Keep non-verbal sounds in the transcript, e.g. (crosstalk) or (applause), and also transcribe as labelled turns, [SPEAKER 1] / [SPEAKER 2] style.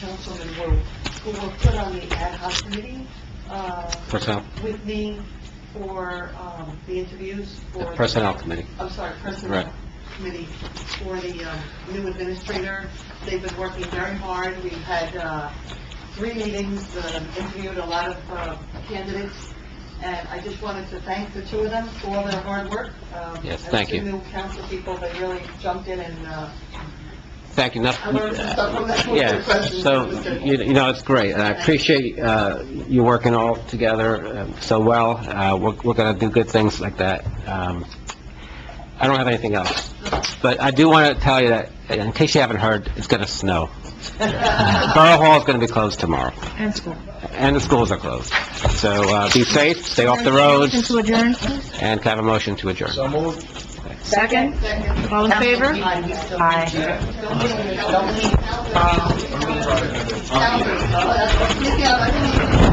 [SPEAKER 1] councilmen were, uh, who were put on the ad hoc committee, uh,
[SPEAKER 2] Personnel,
[SPEAKER 1] with me for, um, the interviews for... the-
[SPEAKER 2] Personnel Committee.
[SPEAKER 1] I'm sorry,
[SPEAKER 2] Right.
[SPEAKER 1] Personnel Committee for the um, new administrator. They've been working very hard. We've had uh, three meetings, uh, interviewed a lot of uh, candidates, and I just wanted to thank the two of them for all their hard work. Um,
[SPEAKER 2] Yes, thank you.
[SPEAKER 1] As two new council people, they really jumped in and, uh,
[SPEAKER 2] Thank you. Not-
[SPEAKER 1] I learned some stuff from that.
[SPEAKER 2] Yes, so, you you know, it's great, and I appreciate uh, you working all together um, so well. Uh, We're we're going to do good things like that. Um, I don't have anything else, but I do want to tell you that, in case you haven't heard, it's going
[SPEAKER 1] (laughs)
[SPEAKER 2] to snow. Borough Hall is going to be closed tomorrow,
[SPEAKER 3] And school.
[SPEAKER 2] and the schools are closed. So uh, be safe, stay off the
[SPEAKER 3] Motion
[SPEAKER 2] roads,
[SPEAKER 3] to adjourn, please.
[SPEAKER 2] and can I have a motion to adjourn.
[SPEAKER 4] So moved.
[SPEAKER 3] Second. All in favor? Aye. Um,
[SPEAKER 1] Don't leave. Don't leave. Don't leave. Don't leave.